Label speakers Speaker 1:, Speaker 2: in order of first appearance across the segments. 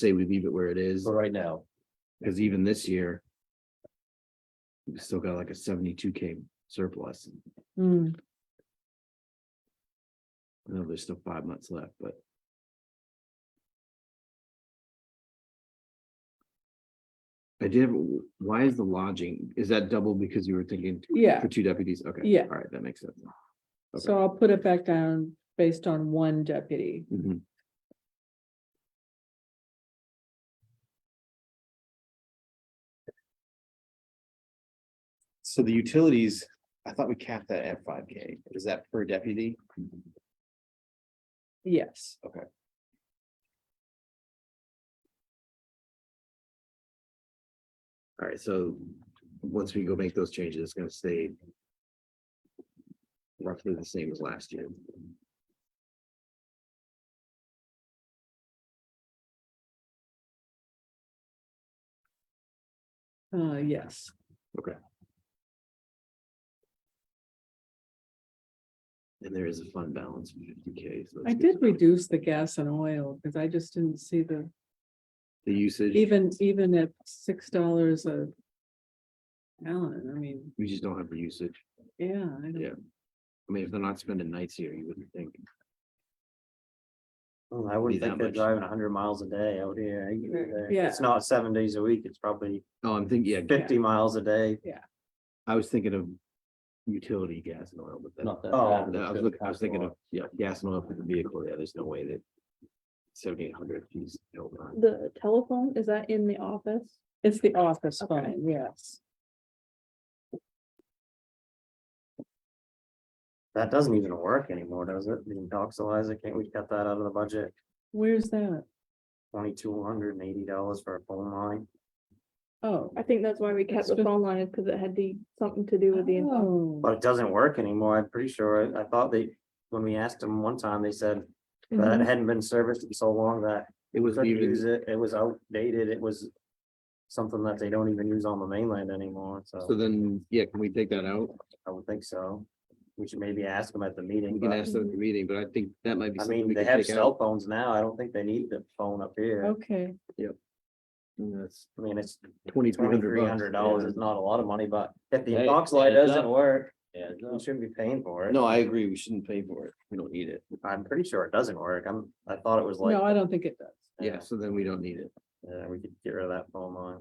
Speaker 1: say we leave it where it is,
Speaker 2: for right now.
Speaker 1: because even this year. We still got like a seventy-two K surplus.
Speaker 3: Hmm,
Speaker 1: I know there's still five months left, but. I did, have a- why is the lodging, is that double because you were thinking
Speaker 3: yeah,
Speaker 1: for two deputies? Okay.
Speaker 3: Yeah.
Speaker 1: All right, that makes sense. Okay.
Speaker 3: so I'll put it back down based on one deputy.
Speaker 1: Mhm.
Speaker 2: So the utilities, I thought we capped that at five K. Is that per deputy?
Speaker 3: Yes.
Speaker 2: Okay.
Speaker 1: All right, so once we go make those changes, it's gonna stay. Roughly the same as last year.
Speaker 3: Uh, yes.
Speaker 1: And there is a fund balance of fifty K. so
Speaker 3: I
Speaker 1: that's good
Speaker 3: did
Speaker 1: to know.
Speaker 3: reduce the gas and oil because I just didn't see the,
Speaker 1: The usage,
Speaker 3: even, even at six dollars a gallon, I mean,
Speaker 1: we just don't have the usage.
Speaker 3: yeah. I don't-
Speaker 1: Yeah. I mean, if they're not spending nights here, you wouldn't think.
Speaker 4: Well, Oh, I
Speaker 1: be
Speaker 4: wouldn't
Speaker 1: that
Speaker 4: think they're
Speaker 1: much.
Speaker 4: driving hundred miles a day out here. I get it, uh,
Speaker 3: Yeah.
Speaker 4: It's not seven days a week. It's probably
Speaker 1: Oh, I'm thinking, yeah,
Speaker 4: fifty miles a day.
Speaker 1: I was thinking of utility, gas and oil, but that.
Speaker 2: Not that.
Speaker 4: Oh,
Speaker 2: bad,
Speaker 1: No, I was
Speaker 2: but
Speaker 1: looking, I was thinking of,
Speaker 2: possible.
Speaker 1: yeah, gas and oil for the vehicle, yeah, there's no way that seventy-eight hundred, geez, no, not-
Speaker 5: The telephone, is that in the office?
Speaker 3: It's the office
Speaker 5: Okay.
Speaker 3: phone, yes.
Speaker 4: That doesn't even work anymore, does it? The intoxilizer, can't we cut that out of the budget?
Speaker 3: Where's that?
Speaker 4: Twenty-two hundred and eighty dollars for a phone line.
Speaker 3: Oh.
Speaker 5: I think that's why we kept the
Speaker 3: Extra-
Speaker 5: phone line is because it had the, something to do with the. info.
Speaker 3: Oh.
Speaker 4: But it doesn't work anymore. I'm pretty sure. I I thought they, when we asked them one time, they said that it hadn't been serviced in so long that
Speaker 1: It was
Speaker 4: couldn't use
Speaker 1: even,
Speaker 4: it. It was outdated. It was something that they don't even use on the mainland anymore,
Speaker 1: so then, yeah, can we take that out?
Speaker 4: I would think so. We should maybe ask them at the
Speaker 1: We
Speaker 4: meeting,
Speaker 1: can
Speaker 4: but
Speaker 1: ask them at the meeting, but I think that might be.
Speaker 4: I
Speaker 1: something
Speaker 4: mean,
Speaker 1: we
Speaker 4: they
Speaker 1: can
Speaker 4: have
Speaker 1: take out.
Speaker 4: cell phones now. I don't think they need the phone up here.
Speaker 3: Okay,
Speaker 1: Mm, That's
Speaker 4: I mean, it's
Speaker 1: twenty-three hundred.
Speaker 4: twenty-three hundred dollars. It's not a lot of money, but if the
Speaker 2: Hey,
Speaker 4: inbox light
Speaker 2: adds
Speaker 4: doesn't
Speaker 2: up.
Speaker 4: work,
Speaker 2: Yeah,
Speaker 4: we shouldn't be paying for it.
Speaker 1: No, I agree, we shouldn't pay for it, we don't need it,
Speaker 4: I'm pretty sure it doesn't work. I'm, I thought it was like,
Speaker 3: no, I don't think it does.
Speaker 1: yeah, so then we don't need it.
Speaker 4: yeah, we could get rid of that phone line.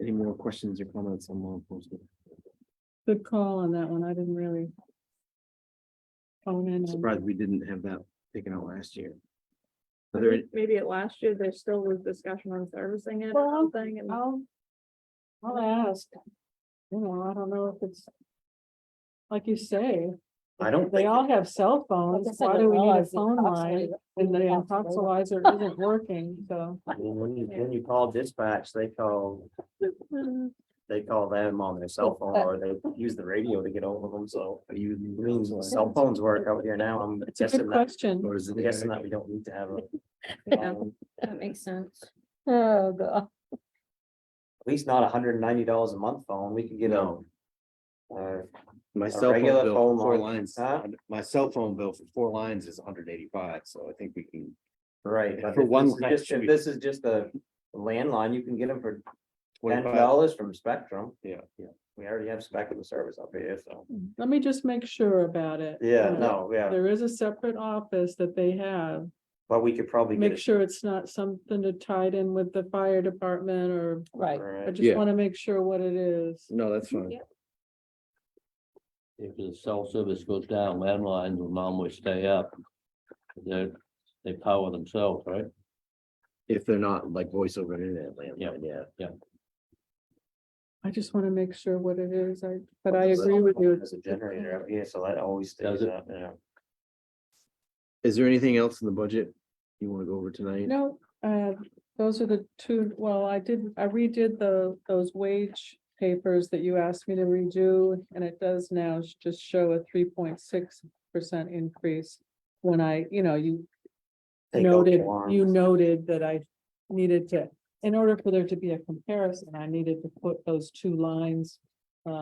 Speaker 1: Any more questions or comments on law enforcement?
Speaker 3: Good call on that one, I didn't really. Phone in. on-
Speaker 1: Surprised we didn't have that taken out last year. Are there,
Speaker 5: I think Maybe at last year, there still was discussion on servicing it or
Speaker 3: Well,
Speaker 5: something and.
Speaker 3: I'll, I'll ask. You know, I don't know if it's. Like you say,
Speaker 4: I don't
Speaker 3: they
Speaker 4: think,
Speaker 3: all have cell phones, why do we need a phone line when the intoxilizer isn't working, so.
Speaker 4: I mean, when you, when you call dispatch, they call, they call them on their cell phone or they use the radio to get over them, so.
Speaker 1: are you?
Speaker 4: I mean, cell phones work out here now. I'm
Speaker 3: It's a good
Speaker 4: guessing that
Speaker 3: question.
Speaker 1: Or is it?
Speaker 4: I'm guessing that we don't need to have a.
Speaker 5: Yeah.
Speaker 4: um,
Speaker 5: That makes sense.
Speaker 3: Oh, God.
Speaker 4: At least not hundred and ninety dollars a month phone, we could get a.
Speaker 1: No.
Speaker 4: uh,
Speaker 1: My
Speaker 4: a
Speaker 1: cell phone
Speaker 4: regular
Speaker 1: bill
Speaker 4: phone
Speaker 1: for four
Speaker 4: line,
Speaker 1: lines,
Speaker 4: huh?
Speaker 1: my cell phone bill for four lines is hundred eighty-five, so I think we can,
Speaker 4: Right. but
Speaker 1: For
Speaker 4: if
Speaker 1: one
Speaker 4: this is
Speaker 1: line,
Speaker 4: just-
Speaker 1: should
Speaker 4: If
Speaker 1: be-
Speaker 4: this is just a landline, you can get them for ten
Speaker 1: 25
Speaker 4: dollars from Spectrum.
Speaker 1: Yeah.
Speaker 4: Yeah, we already have Spectrum service up here, so.
Speaker 3: Let me just make sure about it.
Speaker 4: Yeah,
Speaker 3: Uh,
Speaker 4: no, yeah,
Speaker 3: There is a separate office that they have,
Speaker 4: but we could probably.
Speaker 3: make sure it's not something to tie it in with the fire department or,
Speaker 5: Right.
Speaker 3: I
Speaker 4: Right,
Speaker 3: just
Speaker 1: Yeah.
Speaker 3: wanna make sure what it is.
Speaker 1: No, that's fine.
Speaker 5: Yeah.
Speaker 2: If the cell service goes down, landlines will normally stay up. They're, they power themselves, right?
Speaker 1: If they're not like voice over internet landline, yeah.
Speaker 3: I just wanna make sure what it is, I, but I
Speaker 4: Well,
Speaker 3: agree with you.
Speaker 4: There's a generator up here, so that always
Speaker 2: Does
Speaker 4: stays
Speaker 2: it?
Speaker 4: up, yeah.
Speaker 1: Is there anything else in the budget you wanna go over tonight?
Speaker 3: No, uh, those are the two, well, I did, I redid the, those wage papers that you asked me to redo, and it does now sh- just show a three point six percent increase. When I, you know, you
Speaker 4: Take out
Speaker 3: noted,
Speaker 4: one.
Speaker 3: you noted that I needed to, in order for there to be a comparison, I needed to put those two lines